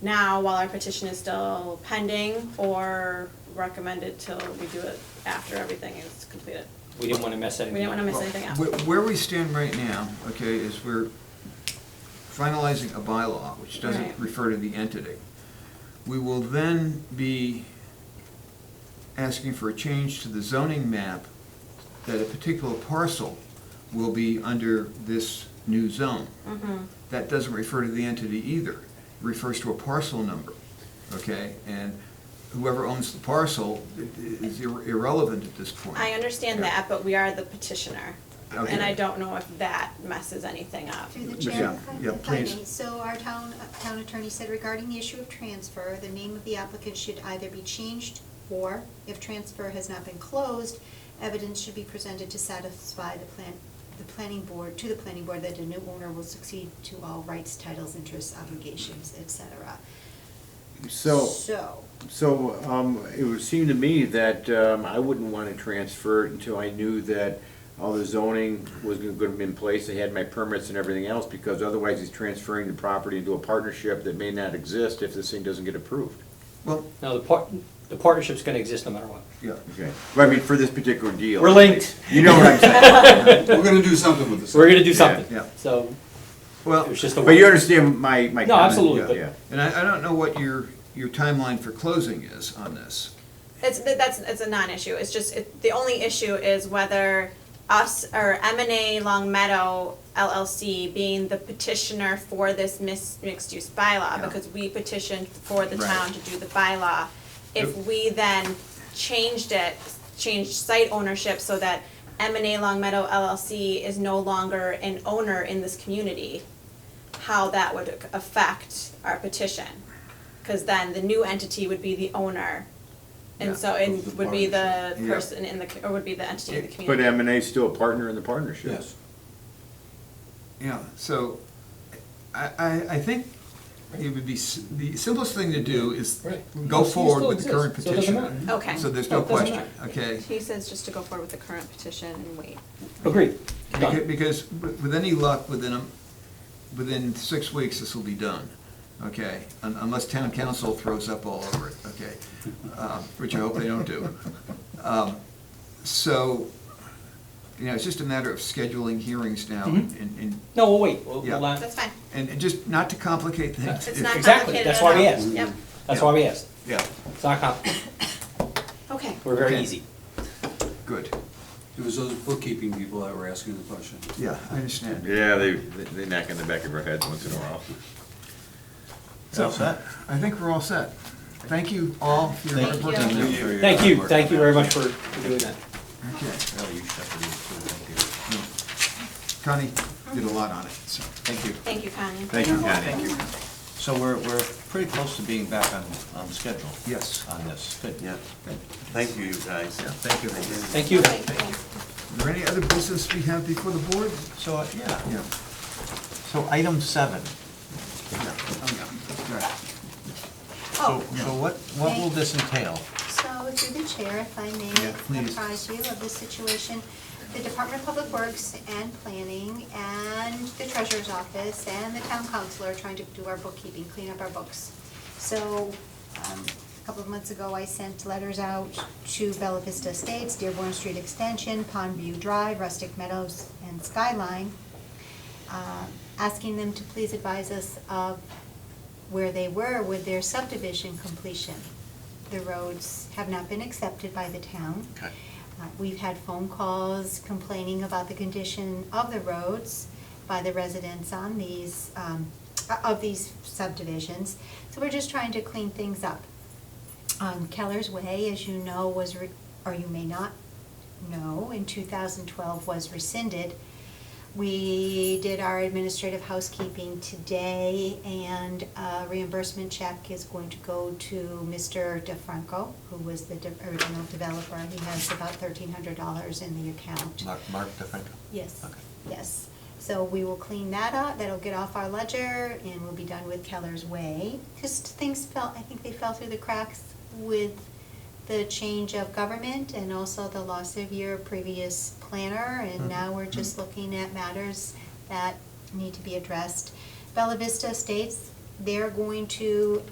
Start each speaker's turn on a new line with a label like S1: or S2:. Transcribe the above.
S1: now while our petition is still pending or recommend it till we do it after everything is completed.
S2: We didn't want to mess
S1: We
S2: anything
S1: didn't
S2: up.
S1: want to miss anything out.
S3: Where where we stand right now, okay, is we're finalizing a bylaw, which doesn't
S1: Right.
S3: refer to the entity. We will then be asking for a change to the zoning map that a particular parcel will be under this new zone.
S1: Mm-hmm.
S3: That doesn't refer to the entity either, It refers to a parcel number, okay? And whoever owns the parcel i- i- is irre- irrelevant at this point.
S1: I understand
S3: Yeah.
S1: that, but we are the petitioner. And
S3: Okay.
S1: I don't know if that messes anything up.
S4: Through the
S3: Yeah,
S4: chair. if I-
S3: yeah,
S4: if I may.
S3: please.
S4: So our town, uh, town attorney said regarding the issue of transfer, the name of the applicant should either be changed or, if transfer has not been closed, evidence should be presented to satisfy the plan, the planning board, to the planning board that a new owner will succeed to all rights, titles, interests, obligations, et cetera.
S5: So,
S4: So,
S5: so um, it would seem to me that um, I wouldn't want to transfer it until I knew that all the zoning was going to be in place, I had my permits and everything else, because otherwise he's transferring the property into a partnership that may not exist if this thing doesn't get approved.
S3: Well,
S2: No, the part, the partnership's going to exist no matter what.
S3: yeah.
S5: Okay. Well, I mean, for this particular deal.
S2: We're linked.
S5: You know what I'm saying?
S6: We're gonna do something with this.
S2: We're going to do something.
S3: yeah.
S2: So
S3: Well,
S2: it was just a.
S5: But you understand my, my comment?
S2: No, absolutely, but-
S5: Yeah.
S3: and I, I don't know what your, your timeline for closing is on this.
S1: It's, but that's, it's a non-issue, it's just, it, the only issue is whether us or M and A Long Meadow LLC being the petitioner for this mis- mixed-use bylaw,
S3: Yeah.
S1: because we petitioned for the
S3: Right.
S1: town to do the bylaw. If we then changed it, changed site ownership so that M and A Long Meadow LLC is no longer an owner in this community, how that would affect our petition. Cause then the new entity would be the owner
S3: Yeah.
S1: and so it would be the
S3: Yeah.
S1: person in the, co- or would be the entity in the
S5: But
S1: community.
S5: M and A's still a partner in the partnership.
S6: Yes.
S3: Yeah, so I, I, I think it would be, s- the simplest thing to do is
S2: Right.
S3: go
S2: He
S3: forward
S2: still
S3: with the current
S2: exists, so it doesn't
S3: petition.
S2: matter.
S1: Okay.
S3: So there's
S2: No,
S3: no
S2: it doesn't
S3: question, okay?
S1: He says just to go forward with the current petition and wait.
S2: Agreed.
S3: Beca-
S2: Done.
S3: Because wi- with any luck, within, a- within six weeks, this will be done, okay? Un- Unless town council throws up all over it, okay? Uh, Which I hope they don't do. Um, So, you know, it's just a matter of scheduling hearings now and,
S2: Mm-hmm.
S3: and-
S2: No, we'll wait. We'll,
S3: Yeah.
S2: we'll, uh,
S1: That's fine.
S3: and and just not to complicate things.
S1: It's not
S2: Exactly,
S1: complicated
S2: that's
S1: at
S2: why we
S1: all.
S2: asked.
S1: Yep,
S2: that's why we asked.
S3: Yeah,
S2: It's not comp,
S1: okay.
S2: we're very
S3: Okay.
S2: easy.
S3: good,
S6: It was those bookkeeping people that were asking the question.
S3: yeah, I understand.
S5: Yeah, they, they knock on the back of our heads once in a while.
S3: So, I think we're all set. Thank you all for your hard work on
S1: Thank
S3: that.
S2: Thank you, thank you very much for for doing that.
S3: Okay. Connie did a lot on it, so, thank you.
S1: Thank you, Connie.
S5: Thank you, Connie.
S7: So we're, we're pretty close to being back on, on schedule
S3: Yes.
S7: on this. Good.
S3: Yeah. Thank
S7: Thank you, you guys.
S3: Yeah, thank you.
S2: Thank you.
S1: Thank you.
S3: Is there any other business we have before the board?
S7: So, uh, yeah,
S3: Yeah.
S7: so item seven. So,
S4: oh,
S7: so what, what will this entail?
S4: So through the chair, if I
S3: Yeah,
S4: may
S3: please.
S4: apprise you of the situation, the Department of Public Works and Planning and the Treasurer's Office and the Town Council are trying to do our bookkeeping, clean up our books. So, um, a couple of months ago, I sent letters out to Bella Vista Estates, Dearborn Street Extension, Pondview Drive, Rustic Meadows, and Skyline, uh, asking them to please advise us of where they were with their subdivision completion. The roads have not been accepted by the town.
S7: Okay.
S4: Uh, We've had phone calls complaining about the condition of the roads by the residents on these, um, of these subdivisions. So we're just trying to clean things up. Um, Keller's Way, as you know, was, re- or you may not know, in 2012 was rescinded. We did our administrative housekeeping today, and a reimbursement check is going to go to Mr. DeFranco, who was the de- original developer. He has about $1,300 in the account.
S3: Uh,
S7: Mark, Mark DeFranco?
S4: Yes,
S7: Okay.
S4: yes. So we will clean that up, that'll get off our ledger, and we'll be done with Keller's Way. Just things fell, I think they fell through the cracks with the change of government and also the loss of your previous planner, and now we're just looking at matters that need to be addressed. Bella Vista Estates, they're going to